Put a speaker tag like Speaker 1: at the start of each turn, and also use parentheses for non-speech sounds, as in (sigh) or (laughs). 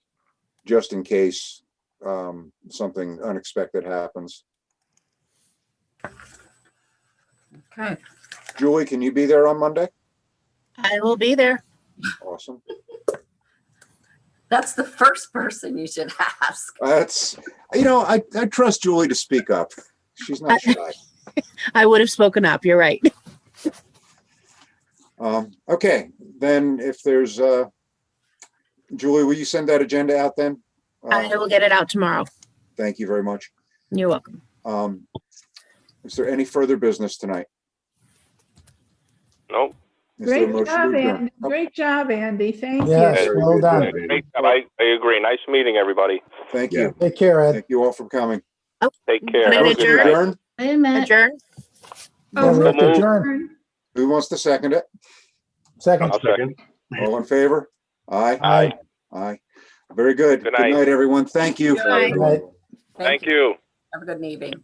Speaker 1: just in case um, something unexpected happens.
Speaker 2: Okay,
Speaker 1: Julie, can you be there on Monday?
Speaker 3: I will be there.
Speaker 1: Awesome.
Speaker 2: that's the first person you should (laughs) ask.
Speaker 1: That's, you know, I, I trust Julie to speak up. She's not shy.
Speaker 3: I would have spoken up. You're right.
Speaker 1: Um, okay, then if there's, uh, Julie, will you send that agenda out then?
Speaker 3: I
Speaker 1: Uh,
Speaker 3: will get it out tomorrow.
Speaker 1: Thank you very much.
Speaker 3: You're welcome.
Speaker 1: Um, is there any further business tonight?
Speaker 4: Nope.
Speaker 1: Is there a
Speaker 5: Great
Speaker 1: motion to
Speaker 5: job,
Speaker 1: adjourn? Oh,
Speaker 5: Andy. Great job, Andy. Thank
Speaker 6: Yes,
Speaker 5: you.
Speaker 1: Very
Speaker 6: well
Speaker 1: good,
Speaker 6: done.
Speaker 1: Andy.
Speaker 4: Great job. I, I agree. Nice meeting everybody.
Speaker 1: Thank you.
Speaker 6: Take care, Ed.
Speaker 1: Thank you all for coming.
Speaker 4: Take care.
Speaker 3: Can I
Speaker 4: Have a good
Speaker 3: adjourn?
Speaker 4: night.
Speaker 1: Adjourn?
Speaker 5: Wait a minute.
Speaker 3: Adjourn.
Speaker 6: Don't
Speaker 5: Oh,
Speaker 6: have to adjourn.
Speaker 5: Turn.
Speaker 1: Who wants to second it?
Speaker 6: Second.
Speaker 4: I'll second.
Speaker 1: All in favor? Aye,
Speaker 4: Aye.
Speaker 1: aye. Very good.
Speaker 4: Good
Speaker 1: Good
Speaker 4: night.
Speaker 1: night, everyone. Thank you.
Speaker 2: Good night.
Speaker 6: Good night.
Speaker 4: Thank you.
Speaker 2: Have a good evening.